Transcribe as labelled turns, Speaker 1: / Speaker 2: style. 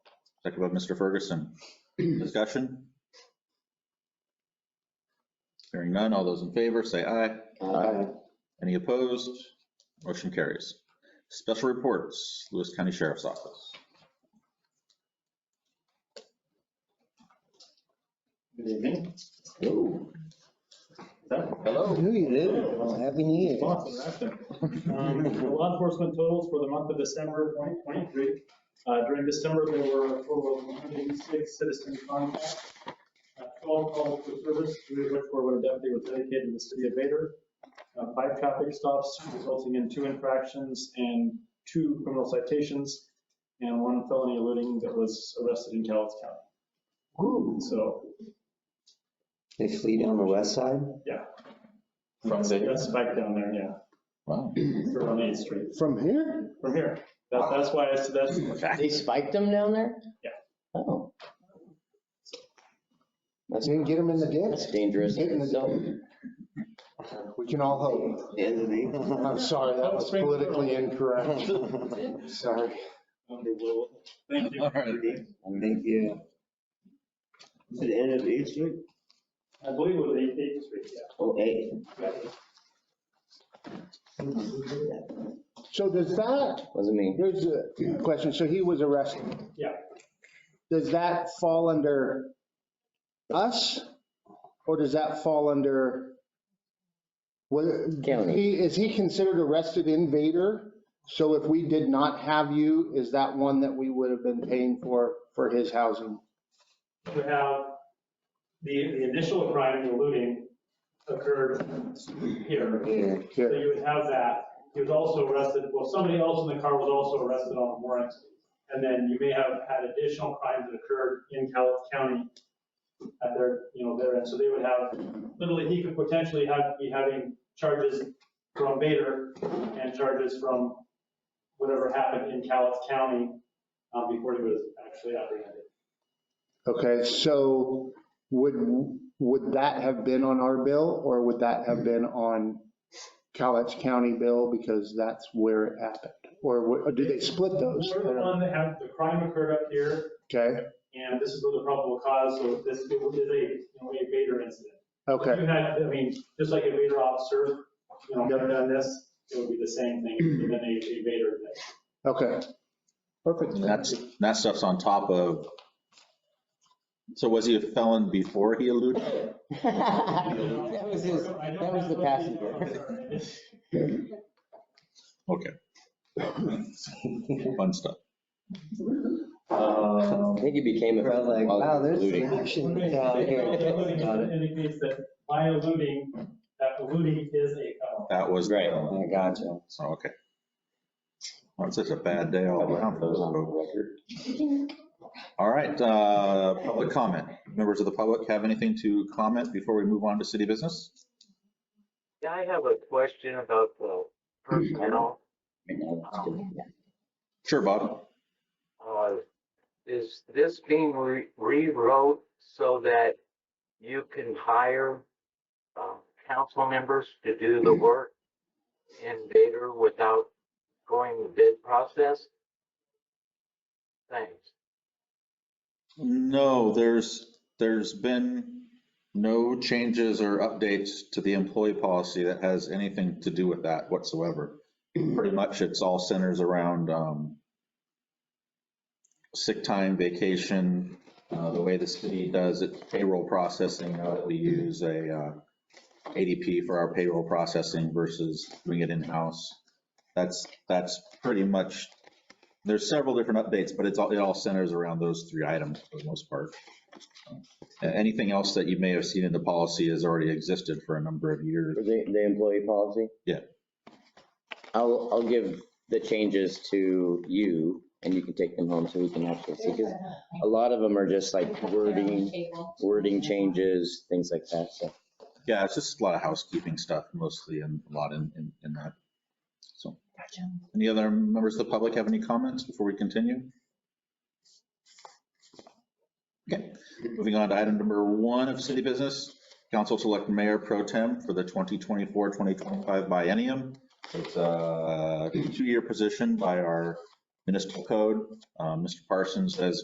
Speaker 1: Second by Mr. Ferguson. Discussion? Hearing none, all those in favor, say aye.
Speaker 2: Aye.
Speaker 1: Any opposed? Motion carries. Special reports, Lewis County Sheriff's Office.
Speaker 3: Good evening.
Speaker 1: Hello.
Speaker 3: Hello.
Speaker 2: New Year, happy New Year.
Speaker 3: Law enforcement totals for the month of December of 2023. Uh, During December, there were a total of 106 citizen contacts, uh, 12 calls for service, three of which were when a deputy was dedicated to the city of Vader, uh, five traffic stops resulting in two infractions and two criminal citations, and one felony eluding that was arrested in Calhoun County. So,
Speaker 2: They flew down the west side?
Speaker 4: From the,
Speaker 3: that's back down there, yeah,
Speaker 1: Wow.
Speaker 3: for on 8th Street.
Speaker 2: From here?
Speaker 3: from here. That, that's why I said that's,
Speaker 4: they spiked them down there?
Speaker 3: Yeah.
Speaker 4: Oh. That's,
Speaker 2: You can get them in the ditch?
Speaker 4: that's dangerous.
Speaker 2: Get in the-
Speaker 4: So,
Speaker 5: We can all hope. I'm sorry, that was politically incorrect. Sorry.
Speaker 3: um, they will, thank you.
Speaker 1: All right.
Speaker 2: Thank you.
Speaker 6: The end of Eighth Street?
Speaker 3: I believe it was eight, eight street, yeah.
Speaker 6: Oh, eight.
Speaker 5: So does that,
Speaker 4: wasn't me.
Speaker 5: here's a question. So he was arrested.
Speaker 3: Yeah.
Speaker 5: Does that fall under us? Or does that fall under? what-
Speaker 4: County.
Speaker 5: he- Is he considered arrested invader? So if we did not have you, is that one that we would have been paying for, for his housing?
Speaker 3: We have, the, the initial crime, the looting occurred here. So
Speaker 5: Here.
Speaker 3: you would have that. He was also arrested, well, somebody else in the car was also arrested on a warrant. And then you may have had additional crimes that occurred in Calhoun County at their, you know, their end. So they would have, literally, he could potentially have, be having charges from Vader and charges from whatever happened in Calhoun County um, before he was actually apprehended.
Speaker 5: Okay, so would, would that have been on our bill or would that have been on Cowlitz County bill because that's where it happened? Or wa- or did they split those?
Speaker 3: We're the one that had, the crime occurred up here,
Speaker 5: Okay,
Speaker 3: and this is where the problem will cause, so this is a, you know, a Vader incident.
Speaker 5: okay,
Speaker 3: You had, I mean, just like a Vader officer, you know, had done this, it would be the same thing, but then a a Vader.
Speaker 5: okay. Perfect.
Speaker 1: And That's, that stuff's on top of, so was he a felon before he eluded?
Speaker 4: That was his, that was the passenger.
Speaker 1: Okay. Fun stuff.
Speaker 4: I think he became a.
Speaker 2: Bro, like,
Speaker 4: while he
Speaker 2: wow,
Speaker 4: was
Speaker 2: there's
Speaker 4: looting.
Speaker 2: some action down here. Got it.
Speaker 3: Indicates that by eluding, that eluding is a felony.
Speaker 1: That was.
Speaker 4: Right.
Speaker 2: Oh, I gotcha.
Speaker 1: So, okay. Well, it's such a bad day all around for those folks. All right, uh, public comment. Members of the public have anything to comment before we move on to city business?
Speaker 7: Yeah, I have a question about the personnel.
Speaker 1: Sure, Bob.
Speaker 7: Uh, Is this being re- rewrote so that you can hire uh, council members to do the work in Vader without going the bid process? Thanks.
Speaker 1: No, there's, there's been no changes or updates to the employee policy that has anything to do with that whatsoever. Pretty much it's all centers around um, sick time, vacation, uh, the way the city does its payroll processing, now that we use a uh, ADP for our payroll processing versus doing it in-house. That's, that's pretty much, there's several different updates, but it's all, it all centers around those three items for the most part. Uh, Anything else that you may have seen in the policy has already existed for a number of years.
Speaker 4: For The, the employee policy?
Speaker 1: Yeah.
Speaker 4: I'll, I'll give the changes to you and you can take them home so we can actually see, because a lot of them are just like wording, wording changes, things like that, so.
Speaker 1: Yeah, it's just a lot of housekeeping stuff mostly and a lot in, in, in that. So, any other members of the public have any comments before we continue? Okay, moving on to item number one of city business, council select mayor pro tem for the 2024, 2025 biennium. It's a two-year position by our municipal code. Uh, Mr. Parsons has